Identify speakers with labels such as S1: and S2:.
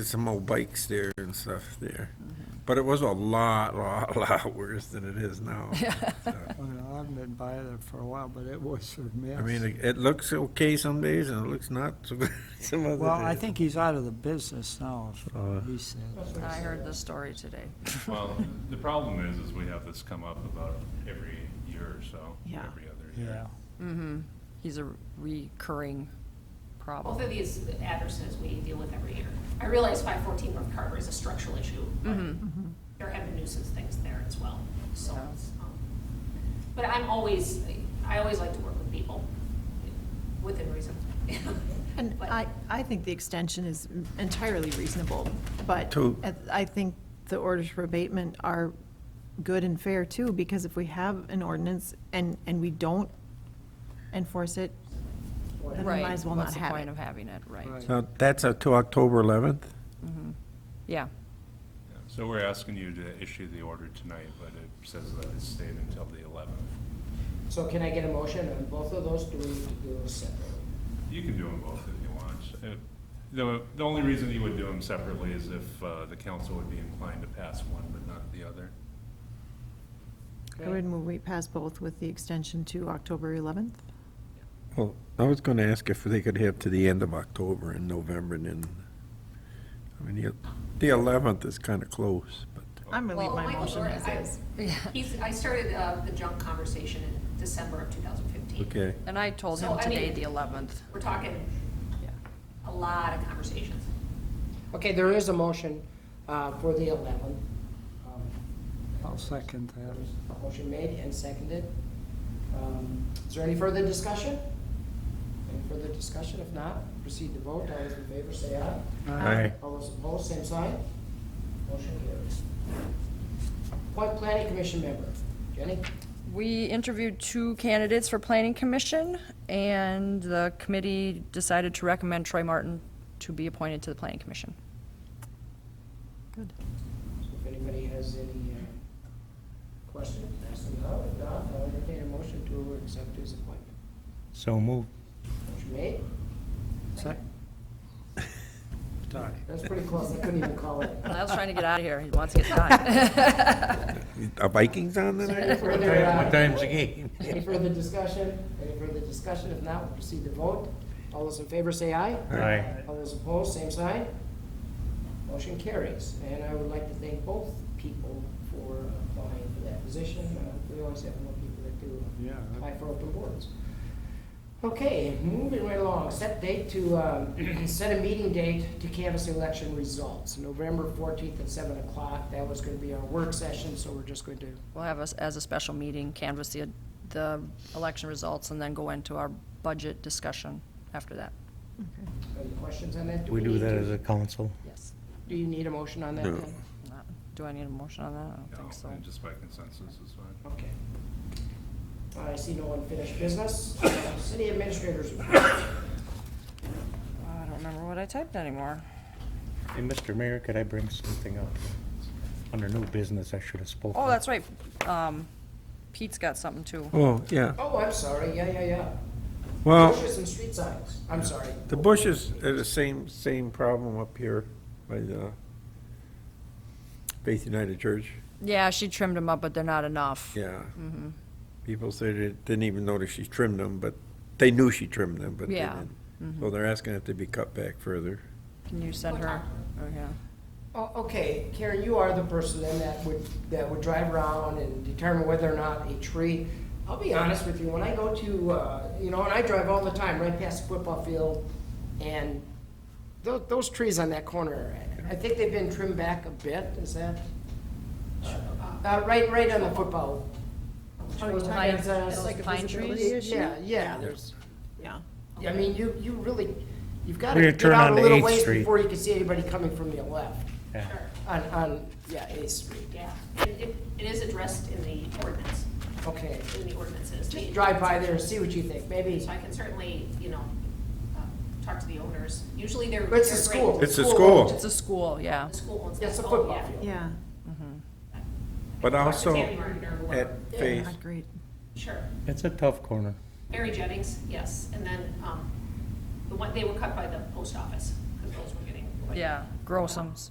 S1: There's some old bikes there and stuff there.
S2: Mm-hmm.
S1: But it was a lot, lot, lot worse than it is now. So,
S2: Well, I haven't been by there for a while, but it was a mess.
S1: I mean, it- it looks okay some days and it looks not so good some other days.
S2: Well, I think he's out of the business now, is
S1: Uh.
S2: what he said.
S3: I heard the story today.
S4: Well, the problem is, is we have this come up about every year or so,
S3: Yeah.
S4: every other
S2: Yeah.
S4: year.
S3: He's a recurring
S5: Both
S3: problem.
S5: of these addresses we deal with every year. I realize five fourteen North Carver is a structural issue, but
S6: Mm-hmm,
S7: Mm-hmm.
S5: there have been nuisance things there as well, so. it's, um, But I'm always, I always like to work with people, within reason.
S7: And
S5: But-
S7: I, I think the extension is entirely reasonable, but
S1: To-
S7: at- I think the orders for abatement are good and fair too, because if we have an ordinance and, and we don't enforce it, then we
S3: Right,
S7: might as well not
S3: What's the
S7: have
S3: point
S7: it.
S3: of having it, right? Mm-hmm.
S2: Right.
S1: So that's up to October 11th?
S3: Yeah,
S4: Yeah. So we're asking you to issue the order tonight, but it says that it's stayed until the eleventh.
S6: So can I get a motion on both of those? Do we need to do them separately?
S4: You can do them both if you want. Uh, The, the only reason you would do them separately is if uh, the council would be inclined to pass one but not the other.
S7: I would move we pass both with the extension to October 11th.
S1: Well, I was going to ask if they could have to the end of October and November and then, I mean, the- the 11th is kind of close, but.
S7: I'm gonna leave
S5: Well,
S7: my
S5: Michael
S7: motion
S5: Jordan,
S7: as
S5: I-
S7: is.
S5: He's, I started uh, the junk conversation in December of two thousand fifteen.
S1: Okay.
S3: and I told
S5: So,
S3: him
S5: I
S3: today,
S5: mean-
S3: the 11th.
S5: We're talking
S3: Yeah.
S5: a lot of conversations.
S6: Okay, there is a motion uh, for the 11th. Um,
S2: I'll second
S6: there's
S2: that.
S6: a Motion made and seconded. Um, Is there any further discussion? Any further discussion? If not, proceed to vote. All those in favor say aye.
S1: Aye.
S6: All those opposed, same sign. Motion carries. Appoint planning commission member. Jenny?
S3: We interviewed two candidates for planning commission, and the committee decided to recommend Troy Martin to be appointed to the planning commission.
S7: Good.
S6: So If anybody has any uh, questions, ask them now. If not, I'll entertain a motion to accept his appointment.
S1: So moved.
S6: Motion made.
S2: Sec- Sorry.
S6: That's pretty close, I couldn't even call it.
S3: I was trying to get out of here, he wants to get done.
S1: Are Vikings on tonight?
S6: What time- what time's
S2: uh,
S1: the game?
S6: Any further discussion? Any further discussion? If not, we'll proceed to vote. All those in favor say aye.
S1: Aye.
S6: All those opposed, same sign. Motion carries. And I would like to thank both people for applying for that position. Uh, We always have more people that do uh,
S2: Yeah.
S6: apply for open boards. Okay, moving right along, set date to, um, set a meeting date to canvass election results, November fourteenth at seven o'clock. That was gonna be our work session, so we're just going to
S3: We'll have us as a special meeting, canvass the, the election results, and then go into our budget discussion after that.
S7: Okay.
S6: Any questions on that?
S8: Do we do
S6: need
S8: that
S6: to-
S8: as a council?
S3: Yes.
S6: Do you need a motion on that?
S1: No.
S6: then?
S3: Not- Do I need a motion on that? I don't think
S4: No,
S3: so.
S4: and Just by consensus is fine.
S6: Okay. I see no unfinished business. City administrators. report.
S3: I don't remember what I typed anymore.
S8: Hey, Mr. Mayor, could I bring something up? Under new business, I should have spoken.
S3: Oh, that's right, um, Pete's got something too.
S1: Oh, yeah.
S6: Oh, I'm sorry, yeah, yeah, yeah.
S1: Well.
S6: Bushes and street signs, I'm sorry.
S1: The bushes uh, are the same, same problem up here by the Faith United Church,
S3: Yeah, she trimmed them up, but they're not enough.
S1: yeah. People say they didn't even notice she trimmed them, but they knew she trimmed them, but they
S3: Yeah.
S1: didn't. So they're asking if they be cut back further.
S3: Can you send her? Oh, yeah.
S6: Oh, okay, Karen, you are the person then that would, that would drive around and determine whether or not a tree. I'll be honest with you, when I go to, uh, you know, and I drive all the time right past the football field and tho- those trees on that corner, I think they've been trimmed back a bit, is that? Uh, right, right on the football.
S3: Pine-
S6: It's,
S3: Oh,
S6: uh,
S3: those pine trees?
S6: Yeah, yeah, there's,
S7: Yeah.
S6: I mean, you, you really, you've gotta
S8: We're gonna
S6: get
S8: turn
S6: out a
S8: onto
S6: little
S8: 8th
S6: ways
S8: Street.
S6: before you can see anybody coming from your left.
S8: Yeah.
S6: On, on, yeah, Eighth Street,
S5: Yeah, it, it- it is addressed in the ordinance,
S6: okay.
S5: in the ordinances.
S6: Just drive by there and see what you think, maybe.
S5: So I can certainly, you know, uh, talk to the owners. Usually they're.
S6: But It's a
S5: they're great.
S6: school.
S1: It's a school.
S3: It's a school, yeah.
S5: The school owns that.
S6: It's a
S5: Oh,
S6: football
S5: yeah.
S6: field.
S7: Yeah,
S1: But
S5: Talk to
S1: also,
S5: Tammy Martin or
S1: at
S5: whoever.
S1: Faith,
S7: not great.
S5: Sure.
S8: It's a tough corner.
S5: Mary Jennings, yes. And then um, the one, they were cut by the post office because those were getting.
S3: yeah, Grosums.